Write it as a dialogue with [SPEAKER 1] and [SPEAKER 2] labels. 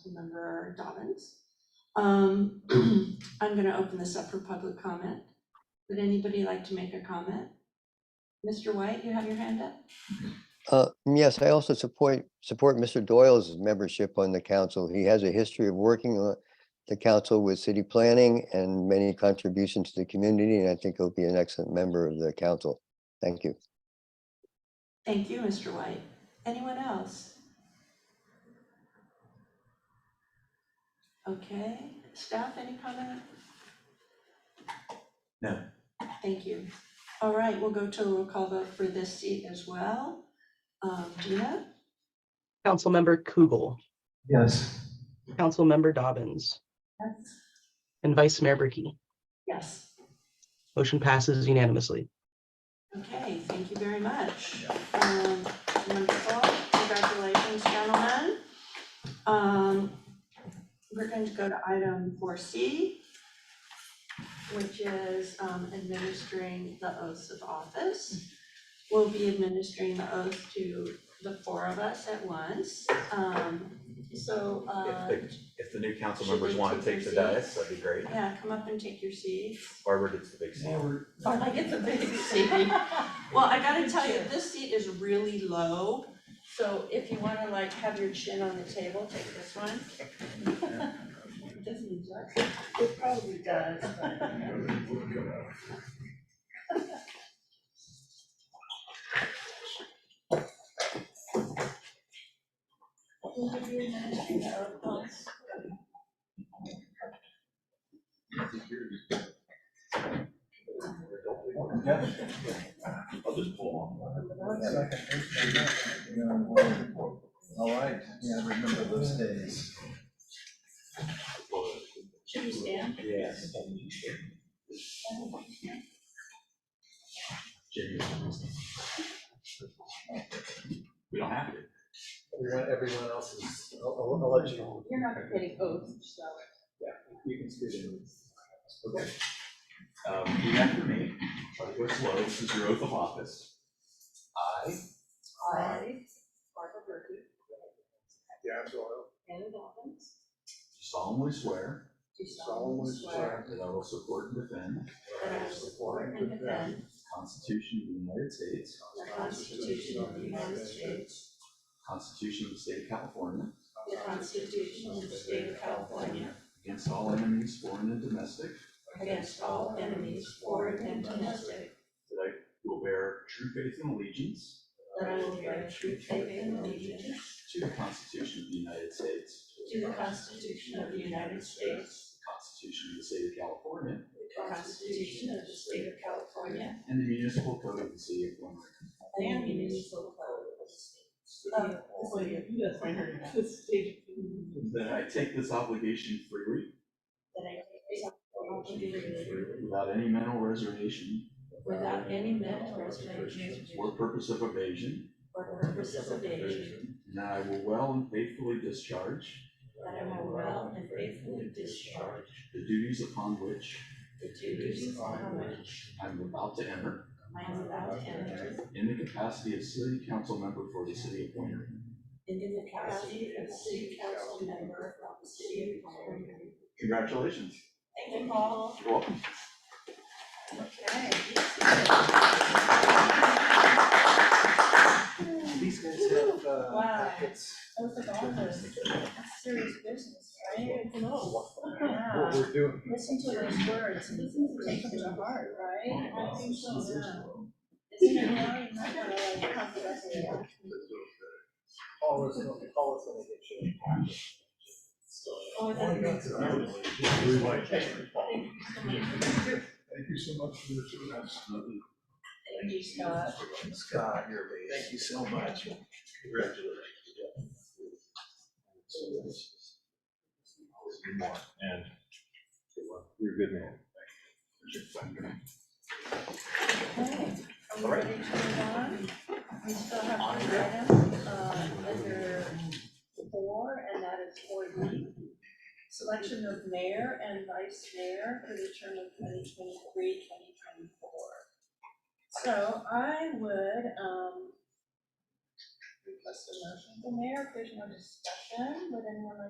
[SPEAKER 1] Councilmember Dobbins. Um, I'm gonna open this up for public comment. Would anybody like to make a comment? Mr. White, you have your hand up?
[SPEAKER 2] Uh, yes, I also support, support Mr. Doyle's membership on the council. He has a history of working on the council with city planning and many contributions to the community, and I think he'll be an excellent member of the council. Thank you.
[SPEAKER 1] Thank you, Mr. White. Anyone else? Okay, staff, any comment?
[SPEAKER 3] No.
[SPEAKER 1] Thank you. All right, we'll go to a roll call vote for this seat as well. Um, Gina,
[SPEAKER 4] Councilmember Kugel,
[SPEAKER 3] Yes.
[SPEAKER 4] Councilmember Dobbins,
[SPEAKER 1] Yes.
[SPEAKER 4] and Vice Mayor Bricky.
[SPEAKER 1] Yes,
[SPEAKER 4] Motion passes unanimously.
[SPEAKER 1] okay, thank you very much. Um, wonderful, congratulations, gentlemen. Um, we're going to go to item four C, which is, um, administering the oaths of office. We'll be administering the oath to the four of us at once, um, so,
[SPEAKER 3] If
[SPEAKER 1] uh,
[SPEAKER 3] the, if the new council
[SPEAKER 1] Should
[SPEAKER 3] members
[SPEAKER 1] we
[SPEAKER 3] want to
[SPEAKER 1] take
[SPEAKER 3] take the
[SPEAKER 1] your seats?
[SPEAKER 3] dais, that'd be great.
[SPEAKER 1] yeah, come up and take your seats.
[SPEAKER 3] Barbara gets the big seat.
[SPEAKER 1] Oh, I get the big seat. Well, I gotta tell you, this seat is really low, so if you wanna like have your chin on the table, take this one. It doesn't adjust. It probably does.
[SPEAKER 5] I'll just pull
[SPEAKER 6] All right, yeah, I remember those days.
[SPEAKER 1] Should we stand?
[SPEAKER 3] Yes.
[SPEAKER 5] We don't have to.
[SPEAKER 6] Everyone, everyone else is, I'll, I'll I'll let you.
[SPEAKER 1] You're not getting oaths, so.
[SPEAKER 6] You can speak in. Okay.
[SPEAKER 5] Um, repeat after me, try to go slow, this is your oath of office. I.
[SPEAKER 7] I, Barbara Berkey,
[SPEAKER 6] Yeah, so
[SPEAKER 7] Anna Dobbins,
[SPEAKER 5] Solemnly swear
[SPEAKER 7] do
[SPEAKER 6] solemnly
[SPEAKER 7] solemnly swear
[SPEAKER 5] that I will support and defend
[SPEAKER 7] that I will
[SPEAKER 6] support
[SPEAKER 7] and defend
[SPEAKER 5] the Constitution of the United States,
[SPEAKER 7] the Constitution of the United States,
[SPEAKER 5] Constitution of the State of California,
[SPEAKER 7] the Constitution of the State of California,
[SPEAKER 5] against all enemies, foreign and domestic,
[SPEAKER 7] against all enemies, foreign and domestic,
[SPEAKER 5] that I will bear true faith and allegiance
[SPEAKER 7] that I will bear true faith and allegiance
[SPEAKER 5] to the Constitution of the United States,
[SPEAKER 7] to the Constitution of the United States,
[SPEAKER 5] the Constitution of the State of California,
[SPEAKER 7] the Constitution of the State of California,
[SPEAKER 5] and the municipal code of the City of Glen Burnie.
[SPEAKER 7] and the municipal code of the State. of-
[SPEAKER 5] That I take this obligation freely
[SPEAKER 7] That I take this obligation
[SPEAKER 5] Without any mental reservation Uh,
[SPEAKER 7] without any mental reservation
[SPEAKER 5] or purpose of evasion.
[SPEAKER 7] or purpose of evasion,
[SPEAKER 5] And that I will well and faithfully discharge
[SPEAKER 7] That I will well and faithfully discharge
[SPEAKER 5] the duties upon which
[SPEAKER 7] the duties upon which
[SPEAKER 5] I am about to enter
[SPEAKER 7] I am about to enter
[SPEAKER 5] in the capacity of city council member for the city of Point Grey,
[SPEAKER 7] in the capacity of city council member of the city of Palm Grove.
[SPEAKER 5] Congratulations.
[SPEAKER 7] Thank you, Paul.
[SPEAKER 5] You're welcome.
[SPEAKER 7] Okay.
[SPEAKER 6] These guys have, uh,
[SPEAKER 7] Wow.
[SPEAKER 6] packets.
[SPEAKER 7] Oath of office, That's serious business, right? It's an oath.
[SPEAKER 6] What
[SPEAKER 7] Yeah.
[SPEAKER 6] we're doing.
[SPEAKER 7] Listen to those words, listen to take them to heart, right? I think so, yeah. Isn't it, really not like confidential?
[SPEAKER 6] All is, all is gonna
[SPEAKER 7] Oh, that makes sense.
[SPEAKER 8] Thank you so much for your service.
[SPEAKER 7] Thank you, Scott.
[SPEAKER 6] get you. Scott, thank you so much.
[SPEAKER 8] And you're a good man.
[SPEAKER 7] Okay, are we ready to move on? We still have one item, uh, under four, and that is four D. Selection of mayor and vice mayor for the term of 2023-2024. So I would, um, request a motion. The mayor, if there's no discussion, would anyone like